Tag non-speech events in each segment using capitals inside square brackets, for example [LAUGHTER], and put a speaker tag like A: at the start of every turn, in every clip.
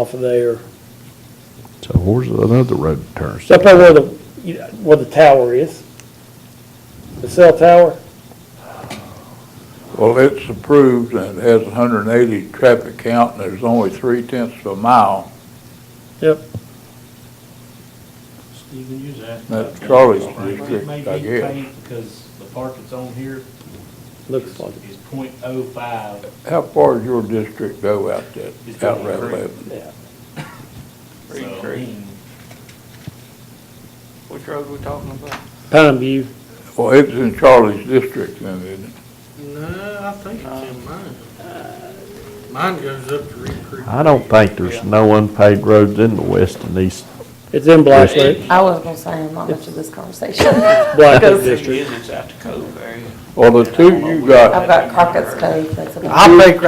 A: off of there.
B: So where's the- another road turns?
A: It's up there where the, you know, where the tower is. The cell tower.
C: Well, it's approved and it has 180 traffic count, and there's only three tenths of a mile.
A: Yep.
D: Stephen, you was asking.
C: That's
D: about-
C: Charlie's
D: It may
C: district, I
D: be
C: guess.
D: paint because the part that's on here
A: Looks like
D: is point oh five.
C: How far does your district go out that,
D: It's
C: out
D: only
C: Route
D: three.
C: 11?
A: it. Yeah.
D: So, I
E: Creek.
D: mean,
E: Which road we talking about?
A: Pine View.
C: Well, it's in Charlie's district, then, isn't it?
F: No, I think
G: Uh,
F: it's in mine. Mine goes up to Reed Creek.
B: I don't think there's no unpaved roads in the west and east.
A: It's in Blackfoot,
G: I was gonna say, I'm not much of this conversation.
A: Blackfoot
E: It
A: District.
E: is, it's out the cove area.
C: Well, the two you got,
G: I've got Crockett's Cove, that's about.
F: I think,
C: two
F: I
C: Uh, you
F: think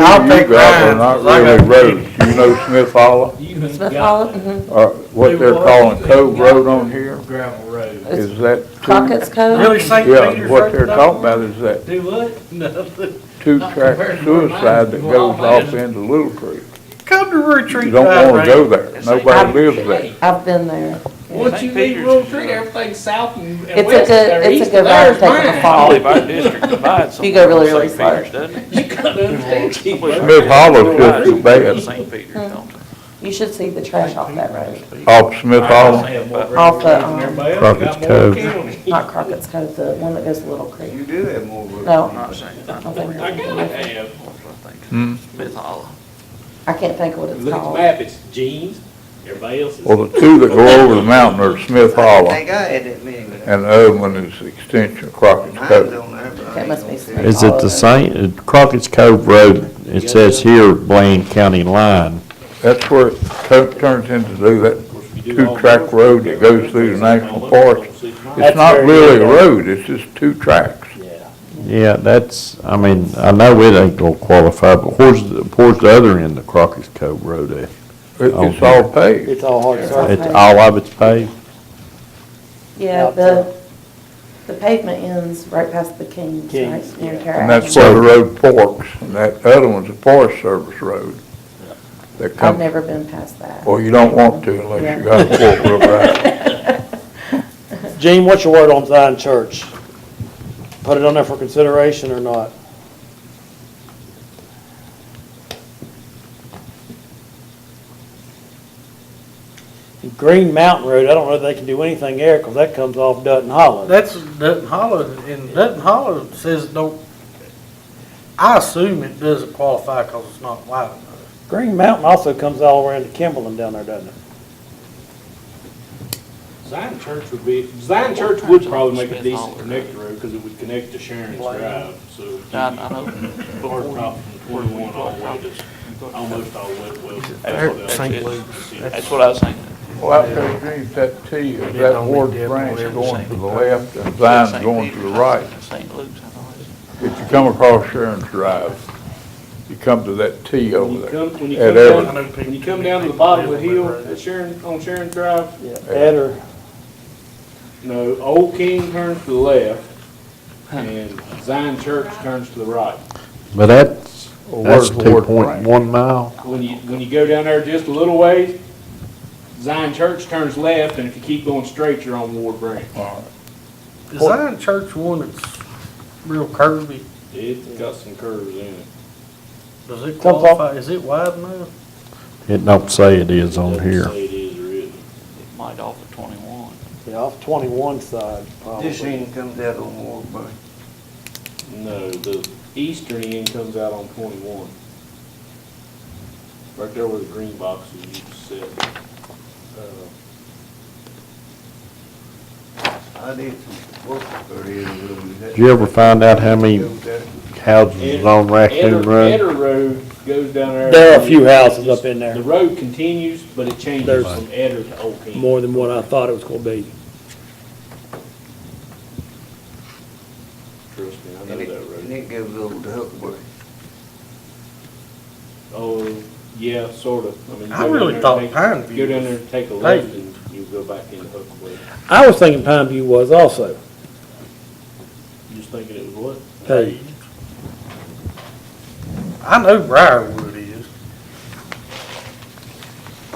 C: got are not
F: mine, I
C: really
F: got,
C: roads. You know Smith Hollow,
D: You ain't
G: Smith
D: got
G: Hollow,
D: that
G: mhm.
C: or what they're calling Cove Road on here?
D: gravel road.
C: Is that two?
G: Crockett's
F: really
G: Cove,
F: St.
C: Yeah,
F: Peter's.
C: what they're talking about is that
D: Do what? Nothing.
C: two-track
D: compared to where mine
C: suicide that
D: is. Well,
C: goes
D: mine
C: off
D: is-
C: into Little Creek.
F: Come to
C: You
F: Retreat
C: don't
F: Drive,
C: wanna go
F: Randy.
C: there.
E: It's like-
C: Nobody lives there.
G: I've been there.
D: Once you
E: St.
D: leave
E: Peter's
D: Little
E: is
D: Creek,
E: another.
D: everything's south and and
G: It's
D: west
G: a
D: there,
G: good,
D: east
G: it's a good
D: there's
G: road to take a
D: mine.
G: [LAUGHS]
E: All of
G: fall.
E: our district divides
G: You go
E: somewhere
G: really, really
E: with St.
G: far.
E: Peter's, doesn't it?
D: You gotta understand, Keith.
C: Smith Hollow's just as bad,
E: St. Peter's, don't they?
G: You should see the trash off that road,
C: off Smith Hollow.
G: Off the, um,
B: Crockett's Cove.
G: not Crockett's Cove, the one that goes to Little Creek.
E: You do have more.
G: No.
E: I'm not saying.
G: I don't think we're
D: I
G: thinking
D: gotta
G: of it.
D: have,
C: Hmm.
E: think. Smith Hollow.
G: I can't think of what it's
D: look at the
G: called.
D: map, it's jeans, everybody else is.
C: Well, the two that go over the mountain are Smith Hollow,
E: I had that many, but
C: and the other one is the extension of Crockett's Cove.
E: don't have.
G: That must be Smith
B: Is it
G: Hollow.
B: the same, uh, Crockett's Cove Road, it says here Blaine County line.
C: That's where it tu- turns into do that, two-track road that goes through the national park.
A: That's
C: it's not
A: very
C: really a
A: good.
C: road, it's just two tracks.
A: Yeah.
B: Yeah, that's, I mean, I know it ain't gonna qualify, but where's, the- where's the other end of Crockett's Cove Road at?
C: It- It's all paved.
A: It's all hard surface.
B: It's all of it's paved?
G: Yeah, the, the pavement ends right past the Kings, right?
A: Kings,
G: near
A: yeah.
G: Terre
C: And
G: Haute.
C: that's where the road forks, and that other one's a Forest Service road. That
G: I've
C: comes,
G: never been past that.
C: well, you don't want to unless you got a four-wheel drive.
G: [LAUGHS]
A: Gene, what's your word on Zion Church? Put it on there for consideration or not? Green Mountain Road, I don't know if they can do anything there because that comes off Dutton Hollow.
F: That's Dutton Hollow, and Dutton Hollow says don't, I assume it doesn't qualify because it's not wide enough.
A: Green Mountain also comes all around to Kimberlin down there, doesn't it?
D: Zion Church would be, Zion Church would probably make a decent connector road, because it would connect to Sharon's Drive, so. it'd be
E: I, I know.
D: Hard top from twenty-one all the way to, almost all the way to Wilson. That's what
E: St.
D: they'll-
E: That's what I was thinking.
C: Well, out there, Gene, that T, is that Ward Branch going to the left and Zion
E: St.
C: going to the
E: Peter's,
C: right?
E: St. Luke's, I know. it's-
C: If you come across Sharon's Drive, you come to that T
D: When
C: over
D: you
C: there.
D: come, when you
C: At
D: come
C: Everett.
D: down, when you come down to the bottom of the hill at Sharon, on Sharon Drive,
A: Yeah. That or
D: no, Old King turns to the left, and Zion Church turns to the right.
B: But that's,
C: Well,
B: that's
C: where's Ward
B: two point one mile.
D: When you, when you go down there just a little ways, Zion Church turns left, and if you keep going straight, you're on Ward Branch.
F: Is Zion Church one that's real curvy?
D: It's got some curves in it.
F: Does it
A: Comes off-
F: qualify, is it wide enough?
B: It don't say it is on
D: Doesn't
B: here.
D: say it is or isn't.
E: It might offer twenty-one.
A: yeah, off 21 side
E: This
A: probably.
E: end comes out on Ward Branch.
D: No, the eastern end comes out on twenty-one. Right there where the green boxes used to sit. Uh,
H: I did some work for him, really. That-
B: Did you ever find out how many
H: that-
B: houses is on Raccoon
D: Eder-
B: Road?
D: Eder Road goes down there.
A: There are a few houses up in
D: The
A: there,
D: road continues, but it changes
A: There's-
D: from Eder to Old King.
A: more than what I thought it was going to be.
D: Trust me, I know
H: And it,
D: that
H: and
D: road.
H: it goes over to Huckabee.
D: Oh, yeah, sort of. mean, you
F: I
D: go down
F: really
D: there and
F: thought
D: take-
F: Pine
D: Go
F: View
D: down
F: was-
D: there and take a
F: Hey.
D: left, and you go back into Hookwood.
A: I was thinking Pine View was also
D: You was thinking it was what?
A: paved.
F: I know Briarwood